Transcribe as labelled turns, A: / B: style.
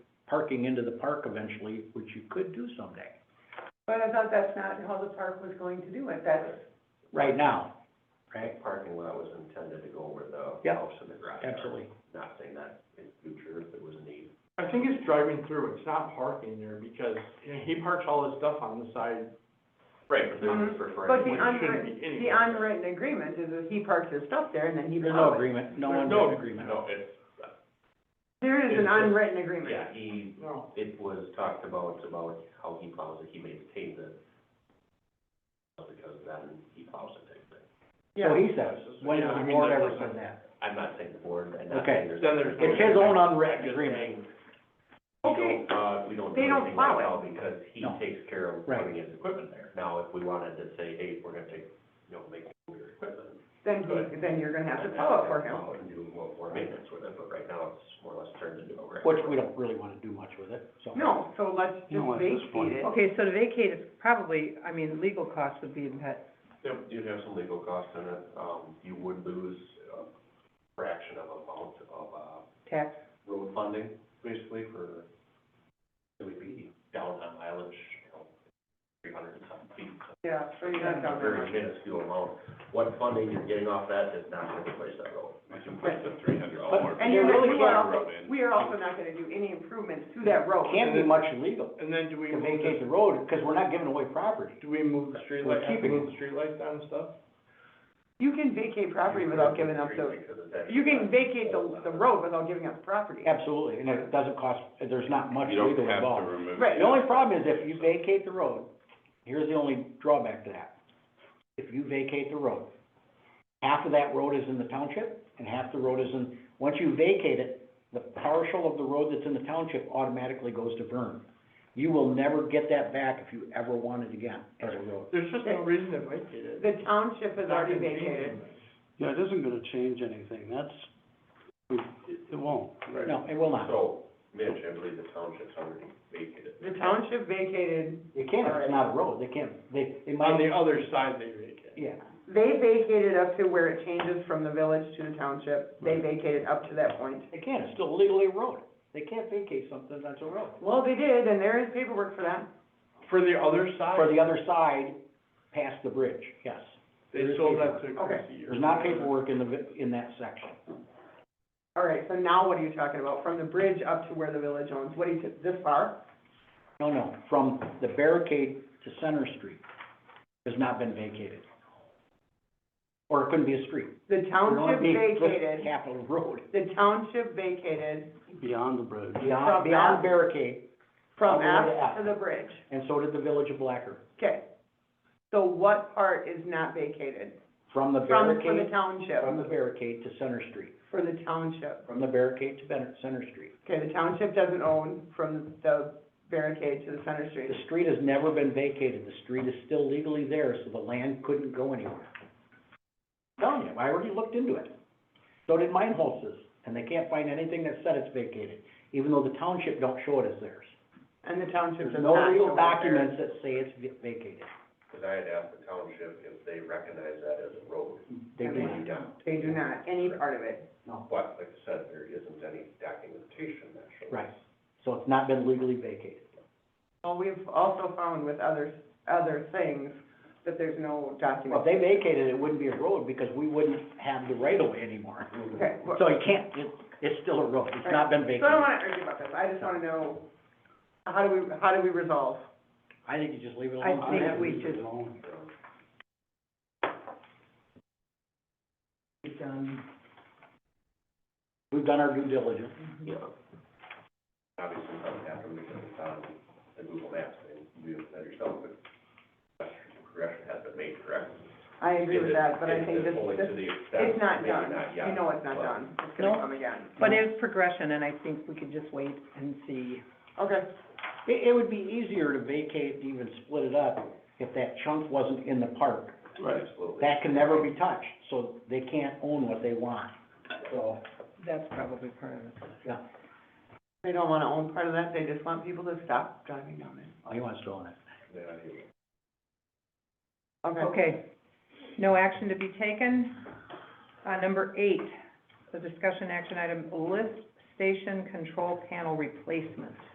A: parking into the park eventually, which you could do someday,
B: But I thought that's not how the park was going to do it, that's,
A: right now, right?
C: Parking lot was intended to go where the
A: Yeah.
C: house and the garage are.
A: Absolutely.
C: Not saying that in future if there was a need.
D: I think it's driving through, it's not parking there, because you know, he parks all his stuff on the side,
C: Right, but they're
B: Mhm.
A: Mm-hmm.
C: just
B: but the
C: referring,
D: Well, it shouldn't
B: unwritten,
D: be anywhere.
B: the unwritten agreement is that he parks his stuff there and then he
A: There's
B: plows
A: no
B: it.
A: agreement, no
D: There's
A: one
D: no-
A: agreement.
C: no, it's,
B: There is an
C: It's just-
B: unwritten agreement.
C: yeah, he,
D: no.
C: it was talked about, about how he plows it, he maintains it. Because then he plows it, I think.
A: So he says, when
D: Yeah,
A: has
D: I
A: the
D: mean,
A: board
D: that
A: ever
D: wasn't-
A: said that?
C: I'm not saying the board, and not
A: Okay.
C: saying there's.
D: Then there's-
A: It's his own unwritten
C: I'm just
A: agreement.
C: saying, We
B: Okay,
C: don't, uh, we don't do
B: They don't
C: anything
B: plow
C: right now because he
A: No.
C: takes care of
A: Right.
C: putting his equipment there. Now, if we wanted to say, hey, we're gonna take, you know, make your equipment.
B: then, he- then you're gonna have to
C: then
B: plow
C: that's
B: it for
C: gonna
B: him.
C: plow it And do more, more maintenance with it, but right now it's more or less turned into a wreck.
A: Which we don't really wanna do much with it, so.
B: No, so let's just
A: No, at this point.
B: vacate it.
E: Okay, so to vacate is probably, I mean, legal costs would be in that,
C: Yep, you'd have some legal costs in it. Um, you would lose a fraction of amount of, uh,
E: tax,
C: road funding, basically, for, it would be down on mileage, you know, three hundred and some feet, so.
B: Yeah, so you're not
C: a
B: covered.
C: very minuscule amount. What funding you're getting off that is not gonna replace that road.
B: And you're,
A: There really
B: we are
A: can't-
B: also, we are also not gonna do any improvements to that road.
A: Can't be much legal
D: And then do we
A: to
D: move
A: vacate
D: the,
A: the road, cause we're not giving away property.
D: do we move the
A: We're
D: streetlight,
A: keeping
D: move the streetlights down and stuff?
B: You can vacate property without giving up the, you can vacate the, the road without giving up property.
A: Absolutely, and it doesn't cost, there's not much legal involved.
F: remove.
B: Right.
A: The only problem is if you vacate the road, here's the only drawback to that. If you vacate the road, half of that road is in the township and half the road is in, once you vacate it, the partial of the road that's in the township automatically goes to Vern. You will never get that back if you ever want it again as a road.
D: There's just no reason to vacate it.
B: The township has already
D: Not gonna change
B: vacated.
D: anything.
F: Yeah, it isn't gonna change anything, that's, it, it won't.
A: No, it will not.
C: So, Mitch, I believe the township's already vacated.
B: The township vacated,
A: They can't, if it's not a road, they can't, they, they
D: On
A: might,
D: the other side, they vacate.
A: yeah.
B: they vacated up to where it changes from the village to the township. They vacated up to that point.
A: They can't, it's still legally a road. They can't vacate something that's a road.
B: Well, they did, and there is paperwork for that.
D: For the other
A: For
D: side,
A: the other side, past the bridge, yes.
D: they sold that to
B: Okay.
D: Chrissy. or
A: There's not
D: whatever.
A: paperwork in the, vi- in that section.
B: All right, so now what are you talking about? From the bridge up to where the village owns, what do you, this far?
A: No, no, from the barricade to Center Street has not been vacated. Or it couldn't be a street.
B: The
A: It would
B: township
A: be just
B: vacated,
A: Capitol Road,
B: the township vacated
F: Beyond the bridge.
A: beyond,
B: From
A: beyond
B: F.
A: the barricade, All
B: from
A: the way to
B: F
A: F.
B: to the bridge.
A: and so did the village of Blacker.
B: Okay. So what part is not vacated?
A: From the
B: From, for the
A: barricade,
B: township,
A: from the barricade to Center Street,
B: for the township.
A: from the barricade to Ben- Center Street.
B: Okay, the township doesn't own from the barricade to the center street.
A: The street has never been vacated, the street is still legally there, so the land couldn't go anywhere. Telling you, I already looked into it. So did mine houses, and they can't find anything that said it's vacated, even though the township don't show it as theirs.
B: And the township
A: There's
B: does
A: no
B: not
A: legal
B: go back there.
A: documents that say it's va- vacated.
C: Cause I had asked the township if they recognize that as a road.
A: They do
C: They
A: not.
C: don't.
B: They do not, any part of it.
C: But like I said, there isn't any documentation that shows.
A: Right. So it's not been legally vacated.
B: Well, we've also found with other, other things that there's no document.
A: Well, if they vacated, it wouldn't be a road because we wouldn't have the right of way anymore.
B: Okay, well,
A: So you can't, it, it's still a road. It's not been
B: so I don't
A: vacated.
B: wanna argue about this, I just wanna know, how do we, how do we resolve?
A: I think you just leave it
E: I
A: alone.
E: think we should
F: Alone.
A: We've done- We've done our due diligence.
C: Yeah. Obviously, something happened because it's on the Google Maps, and you didn't know yourself, but progression has been made correctly.
B: I agree with that, but I
C: Is it-
B: think
C: is it
B: this,
C: fully to
B: this,
C: the extent?
B: it's not
C: Maybe
B: done,
C: not yet,
B: you know it's not
C: but-
B: done, it's gonna
E: No.
B: come again.
E: but it's progression, and I think we could just wait and see.
B: Okay,
A: It, it would be easier to vacate, even split it up, if that chunk wasn't in the park.
D: Right.
C: Absolutely.
A: That can never be touched, so they can't own what they want. So,
E: That's probably part of it.
B: they don't wanna own part of that, they just want people to stop driving down it,
A: oh, he wants to own it.
C: Yeah, I hear you.
B: okay.
E: Okay, no action to be taken. Uh, number eight, the discussion action item, lift station control panel replacement.